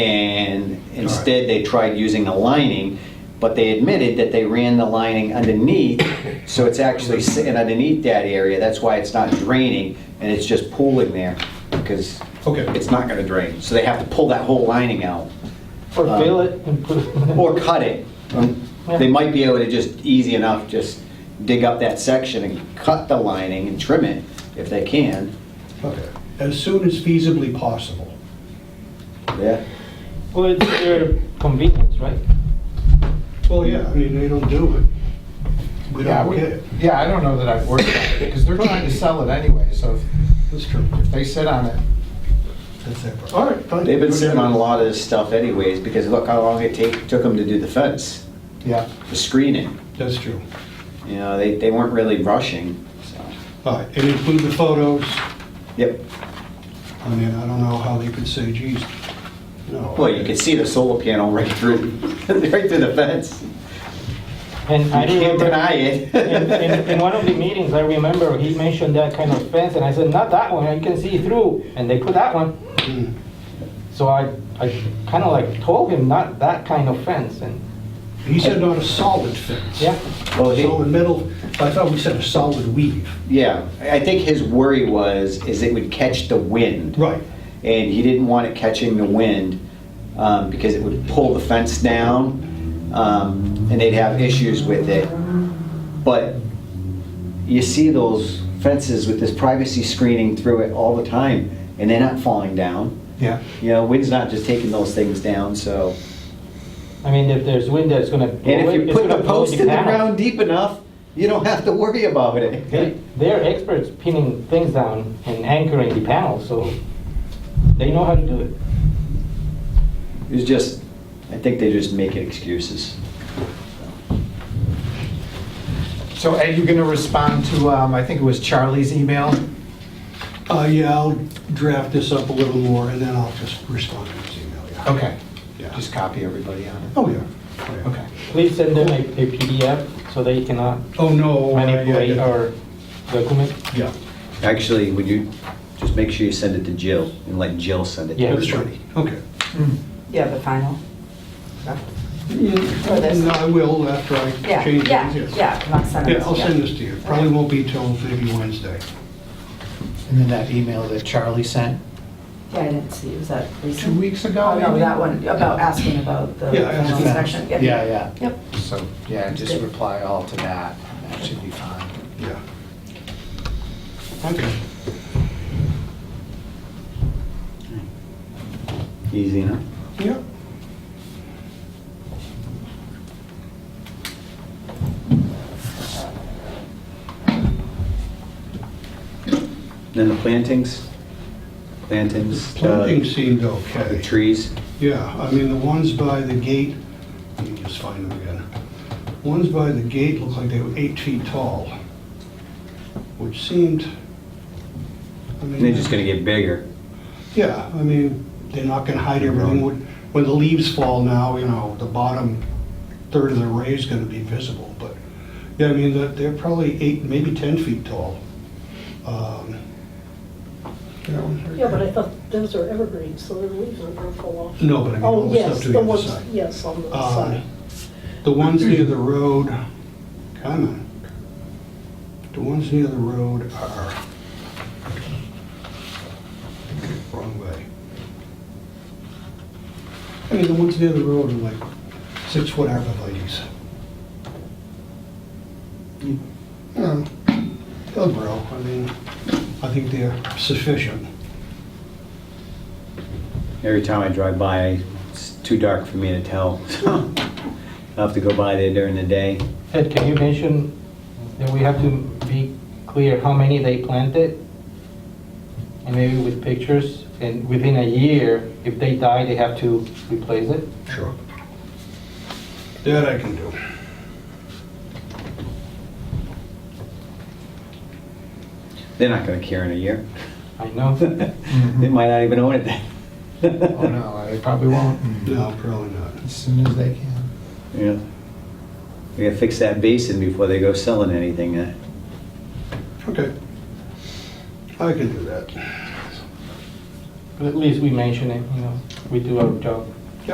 Instead, they tried using a lining, but they admitted that they ran the lining underneath, so it's actually sitting underneath that area. That's why it's not draining, and it's just pooling there, because Okay. it's not gonna drain. So they have to pull that whole lining out, Or fill it and put or cut it. Um, They might be able to just, easy enough, just dig up that section and cut the lining and trim it, if they can. Okay. As soon as feasibly possible. Yeah. Well, it's their convenience, right? Well, yeah, I mean, they don't do it. We Yeah, don't we- get it. yeah, I don't know that I've worked on it, because they're trying to sell it anyway, so That's true. if they sit on it, That's their problem. All right, fine. They've been sitting on a lot of this stuff anyways, because look how long it take, took them to do the fence, yeah. the screening. That's true. You know, they, they weren't really rushing, so. All right, and include the photos. Yep, I mean, I don't know how they could say, geez, no. well, you could see the solar panel right through, right through the fence. And You I can't remember, deny in, in, in it. one of the meetings, I remember he mentioned that kind of fence, and I said, not that one, I can see through, and they put that one. Hmm. So I, I kind of like told him, not that kind of fence, and, He said not a solid fence. yeah. Well, he- Solid metal, I thought we said a solid weave. Yeah, I I think his worry was, is it would catch the wind. Right. And he didn't want it catching the wind, um, because it would pull the fence down, um, and they'd have issues with it. But you see those fences with this privacy screening through it all the time, and they're not falling down. Yeah. You know, wind's not just taking those things down, so. I mean, if there's wind that's gonna. blow And if it, you it's put gonna the blow post in the panels. ground deep enough, you don't have to worry about it. They- They're experts pinning things down and anchoring the panels, so they know how to do it. It's just, I think they're just making excuses. So Ed, you gonna respond to, um, I think it was Charlie's email? Uh, yeah, I'll draft this up a little more and then I'll just respond to his email. yeah. Oh. Okay, Yeah. just copy everybody on it. Oh, yeah. Oh, yeah. Okay. Please send them a a PDF so they cannot Oh, no. I- I- manipulate our document. Yeah, Actually, would you, just make sure you send it to Jill and let Jill send it to Yeah. that's everybody. right. Okay. Yeah, the final. For this? No, I will after I Yeah, change it. yeah, yes. yeah, and I'll send it. Yeah, I'll send this to you. Probably won't be till maybe Wednesday. And then that email that Charlie sent Yeah, I didn't see, was that recent? two weeks ago, Oh, no, maybe? that one, about asking about the Yeah, I final understand. inspection. Yeah, yeah. Yep. So, yeah, just Good. reply all to that, that should be fine. Yeah. Okay. Easy enough. Yeah. Then the plantings? Plantings? uh, Planting seemed The okay. trees? Yeah, I mean, the ones by the gate, let me just find them again. Ones by the gate looked like they were eight feet tall, which seemed, I mean... And they're just gonna get bigger. Yeah, I mean, they're not gonna hide everything. When when the leaves fall now, you know, the bottom third of the array is gonna be visible, but, yeah, I mean, they're- they're probably eight, maybe 10 feet tall. Um, you know, Yeah, but I thought those are evergreens, so their leaves aren't gonna fall off. No, but I mean, all Oh, the stuff yes, to the the other ones, side. yes, on the Um, side. The ones near the road, kind of, the ones near the road are, wrong way. I mean, the ones near the road are like six-foot arborvitae's. You know, They'll grow, I mean, I think they're sufficient. Every time I drive by, it's too dark for me to tell, so I'll have to go by there during the day. Ed, can you mention that we have to be clear how many they planted? And maybe with pictures, and within a year, if they die, they have to replace it? Sure. That I can do. They're not gonna care in a year. I know. They might not even own it then. Oh, no, they probably won't, No, probably not. as soon as they can. Yeah. We gotta fix that basin before they go selling anything, uh, Okay. I can do that. But at least we mention it, you know, we do our job.